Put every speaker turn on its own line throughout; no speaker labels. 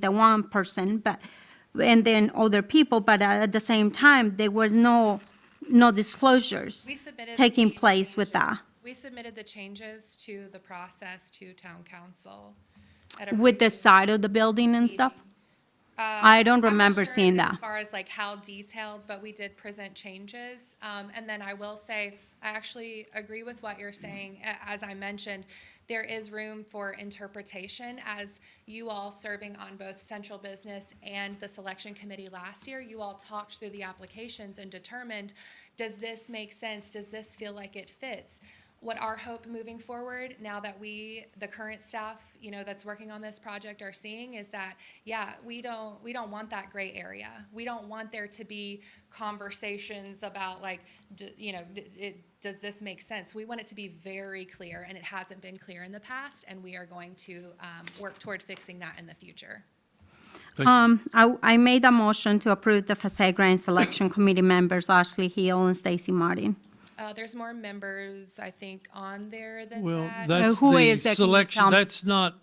the one person, but, and then other people, but at the same time, there was no, no disclosures
We submitted
taking
the
place with that,
changes- We submitted the changes to the process to town council. at a um,
with the side of the building and stuff. I don't
I'm not
remember
sure
seeing that.
As far as like how detailed, but we did present changes. Um, and then I will say, I actually agree with what you're saying. A- As I mentioned, there is room for interpretation as you all serving on both central business and the selection committee last year. You all talked through the applications and determined, does this make sense? Does this feel like it fits? what our hope moving forward now that we the current staff you know that's working on this project are seeing is that yeah we don't we don't want that gray area we don't want there to be conversations about like d- you know d- it, does this make sense we want it to be very clear and it hasn't been clear in the past and we are going to um, work toward fixing that in the future
Um, I, I made a motion to approve the Passaic Grand Selection Committee members, Ashley Hill and Stacy Martin.
uh, there's more members i think on there than
Well,
that
that's
who
the
is that? Can you tell
selection,
me?
that's not,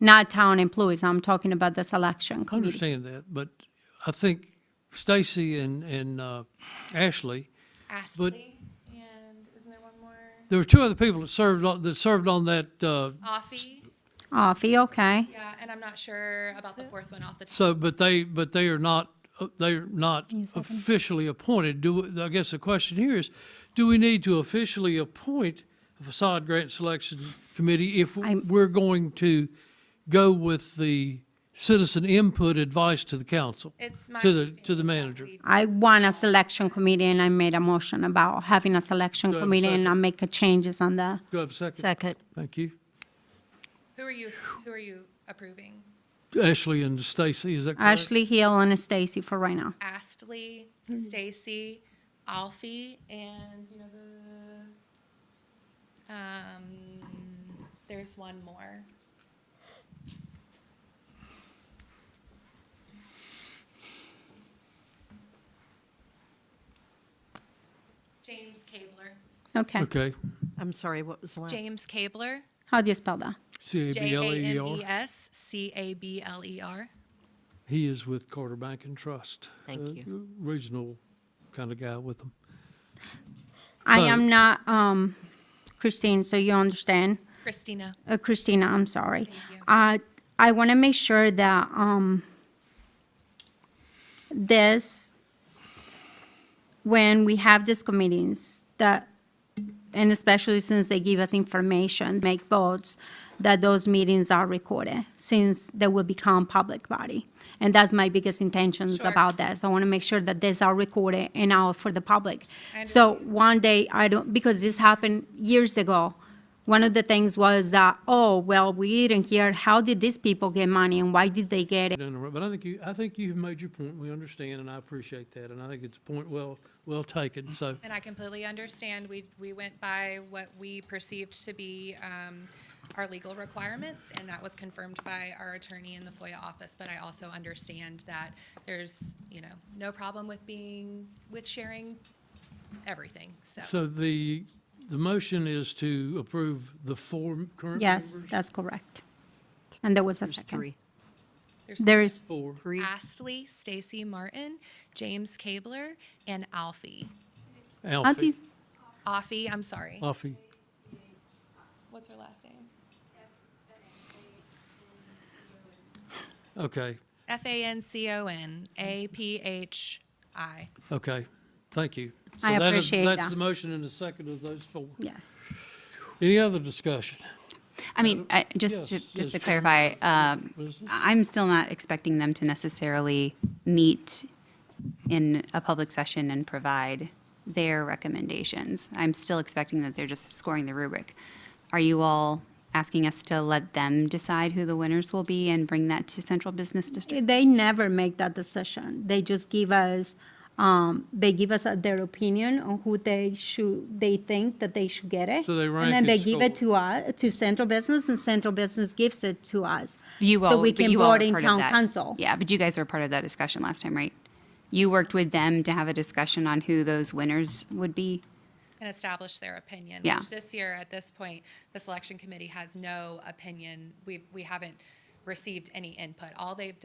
Not town employees, I'm talking about the selection
I
committee.
understand that, but I think Stacy and, and uh, Ashley,
astley and isn't there one more
there were two other people that served on, that served on that, uh,
Offie.
Offie, Oh, okay.
Yeah, and I'm not sure about the fourth one off the top.
so, but they, but they are not, uh, they are not officially appointed. Do, I guess the question here is, do we need to officially appoint a facade grant selection committee if
I'm-
we're going to go with the citizen input advice to the council?
It's my
To the, to the
understanding that
manager?
we-
I want a selection committee and I made a motion about having a selection
Do I have a
committee and
second?
I make the changes on the,
Do I have a second?
Second.
Thank you.
Who are you, who are you approving?
Ashley and Stacy, is that correct?
Ashley Hill and Stacy for right now.
Astley, Stacy, Alfie, and you know the, um, there's one more. James Cabler.
Okay.
Okay,
I'm sorry, what was the last?
James Cabler.
How do you spell that?
C A B
J
L
A
E
M
R.
E S C A B L E R.
He is with Carter Bank and Trust.
Thank
uh,
you.
Regional kind of guy with them.
I
Oh.
am not, um, Christine, so you understand.
Christina.
Uh, Christina, I'm sorry.
you.
Uh, I want to make sure that, um, this, when we have these committees, that, and especially since they give us information, make votes, that those meetings are recorded, since they will become public body. And that's my biggest intentions
Sure.
about this. I want to make sure that these are recorded and out for the public.
I
So one day, I don't, because this happened years ago, one of the things was that, oh, well, we didn't hear, how did these people get money and why did they get it?
Don't interrupt, But I think you, I think you've made your point. We understand and I appreciate that. And I think it's a point well, well taken. So
And I completely understand. We, we went by what we perceived to be um, our legal requirements, and that was confirmed by our attorney in the FOIA office. But I also understand that there's, you know, no problem with being, with sharing everything, so.
So the, the motion is to approve the four current members?
Yes, that's correct. And there was a
There's
second.
three.
there's
There is,
Four.
Three.
Astley, Stacy Martin, James Cabler, and Alfie.
how do
Alfie,
you-
Alfie, I'm sorry.
Alfie.
What's her last name?
Okay,
F A N C O N A P H I.
okay. Thank you. So
I
that is-
appreciate
That's
that.
the motion and the second of those four.
yes.
Any other discussion?
I mean, I- just to,
yes,
just to
yes.
clarify, um,
What is this?
I'm still not expecting them to necessarily meet in a public session and provide their recommendations. I'm still expecting that they're just scoring the rubric. Are you all asking us to let them decide who the winners will be and bring that to central business district?
They never make that decision. They just give us, um, they give us uh, their opinion on who they should, they think that they should get it.
So they rank
And then
and
they give it
score.
to us, to central business, and central business gives it to us.
You all,
So we
but
can
you all
vote
were
in
part of
town
that.
council.
Yeah, but you guys were part of that discussion last time, right? You worked with them to have a discussion on who those winners would be?
and establish their opinion.
Yeah.
Which this year, at this point, the selection committee has no opinion. We, we haven't received any input. All they've done.